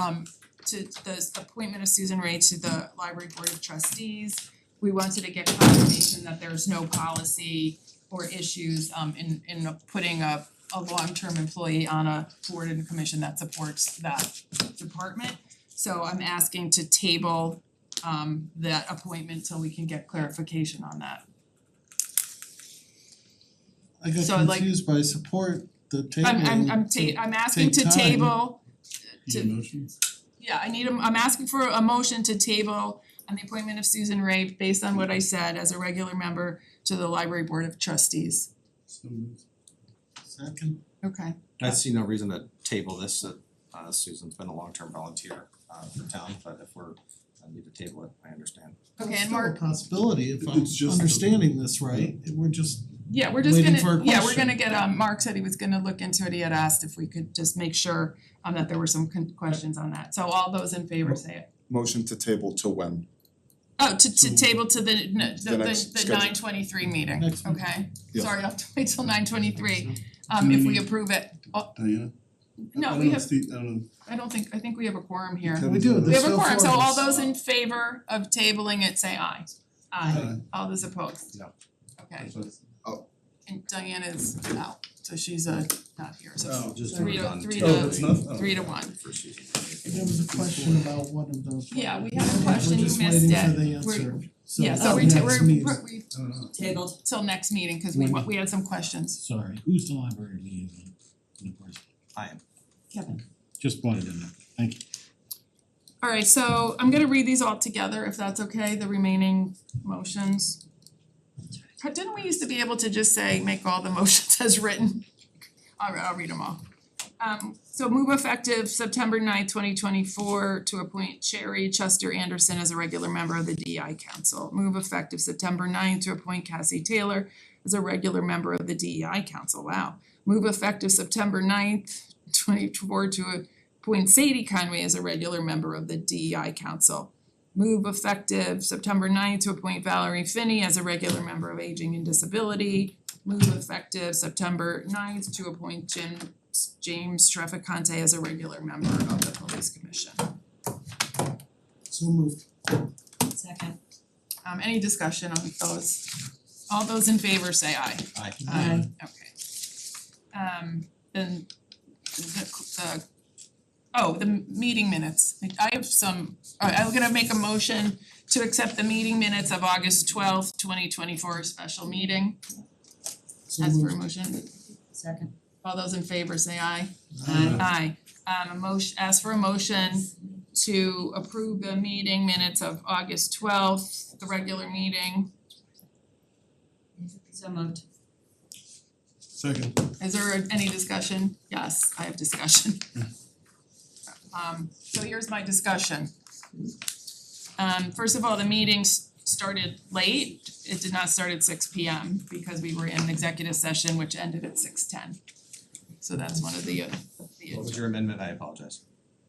um to the appointment of Susan Ray to the Library Board of Trustees. We wanted to get confirmation that there's no policy or issues um in in putting a a long-term employee on a board and commission that supports that department. So I'm asking to table um that appointment till we can get clarification on that. I got So I'd like- confused by support the table. I'm I'm I'm ta- I'm asking to Take time. table Need a motion? Yeah, I need a, I'm asking for a motion to table on the appointment of Susan Ray based on what I said as a regular member to the library board of trustees. So moved. Second, Okay. I see no reason to table this, uh, uh, Susan's been a long-term volunteer uh for town, but if we're, I need to table it, I understand. Okay, it's and still a Mark, possibility if I'm It's just the- understanding this right, we're just, yeah, we're just waiting for gonna, a yeah, we're question. gonna get, um, Mark said he was gonna look into it, he had asked if we could just make sure um that there were some con- questions on that, so all those in favor say it. Motion to table to when? Oh, to So- to table to the n- the The next the the schedule. nine twenty three meeting, Next meeting. okay? Yes. Sorry, I'll have to wait till nine twenty three, um Do if we we need- approve it, oh, Diana? no, I we don't know, have, Steve, I don't know. I don't think, I think we have a quorum here. Kevin's we do, not- We There's have a no quorum, so all quorums. those in favor of tabling it, say aye. Aye. All those opposed? No. Okay, That's- and Diane is out, so she's uh not here, so Oh, Just Three to- redone three tabling Oh, it's not, oh. three to one. for Susan. there was a question about one of those. right? Yeah, we had a question, you missed it. We're- We're just waiting for the answer, so Yeah, so the we ta- next we're meeting. we're we I don't know. Tabled. till next meeting, cause we wa- we had some questions. Sorry, who's the library liaison in the first? I am, Kevin. Just brought it in there, thank you. Alright, so I'm gonna read these all together, if that's okay, the remaining motions. Didn't we used to be able to just say, make all the motions as written? Alright, I'll read them all. Um so move effective September 9th, twenty twenty four to appoint Sherry Chester Anderson as a regular member of the DI Council. Move effective September 9th to appoint Cassie Taylor as a regular member of the DEI Council, wow. Move effective September 9th, twenty four to appoint Sadie Conway as a regular member of the DEI Council. Move effective September 9th to appoint Valerie Finney as a regular member of Aging and Disability. Move effective September 9th to appoint Jim James Trafficante as a regular member of the Police Commission. So moved, Second. Um any discussion on those? All those in favor say aye. I Aye. Okay. Um then the the oh, the meeting minutes. I have some, I I'm gonna make a motion to accept the meeting minutes of August twelfth, twenty twenty four special meeting. so As for a moved. motion, Second. all those in favor say aye. Aye. Aye. Um a motion, ask for a motion to approve the meeting minutes of August twelfth, the regular meeting. So moved. Second. Is there any discussion? Yes, I have discussion. Um so here's my discussion. Um first of all, the meeting s- started late. It did not start at six P M because we were in executive session which ended at six ten. So that's one of the uh the What was your amendment? I apologize.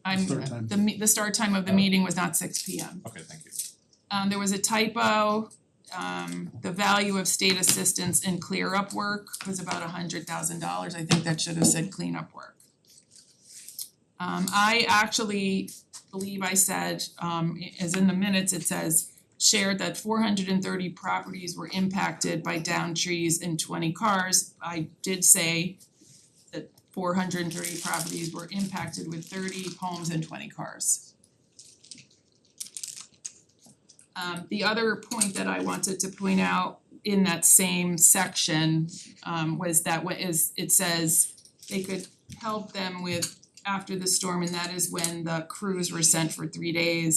I'm Start time. the me- the start time of the meeting was not six P M. Okay, thank you. Um there was a typo, um the value of state assistance in clear up work was about a hundred thousand dollars, I think that should have said cleanup work. Um I actually believe I said, um i- as in the minutes, it says shared that four hundred and thirty properties were impacted by downed trees and twenty cars. I did say that four hundred and thirty properties were impacted with thirty homes and twenty cars. Um the other point that I wanted to point out in that same section um was that what is it says they could help them with after the storm and that is when the crews were sent for three days.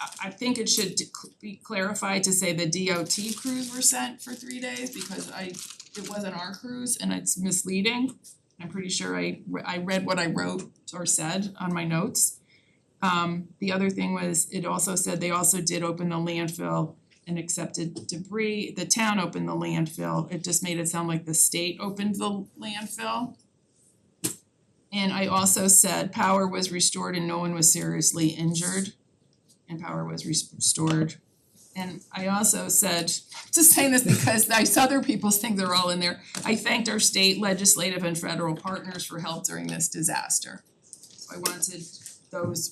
I I think it should dec- be clarified to say the DOT crews were sent for three days because I it wasn't our crews and it's misleading. I'm pretty sure I re- I read what I wrote or said on my notes. Um the other thing was, it also said they also did open the landfill and accepted debris, the town opened the landfill, it just made it sound like the state opened the landfill. And I also said power was restored and no one was seriously injured, and power was res- restored. And I also said, just saying this because I saw other people's things are all in there, I thanked our state legislative and federal partners for help during this disaster. So I wanted those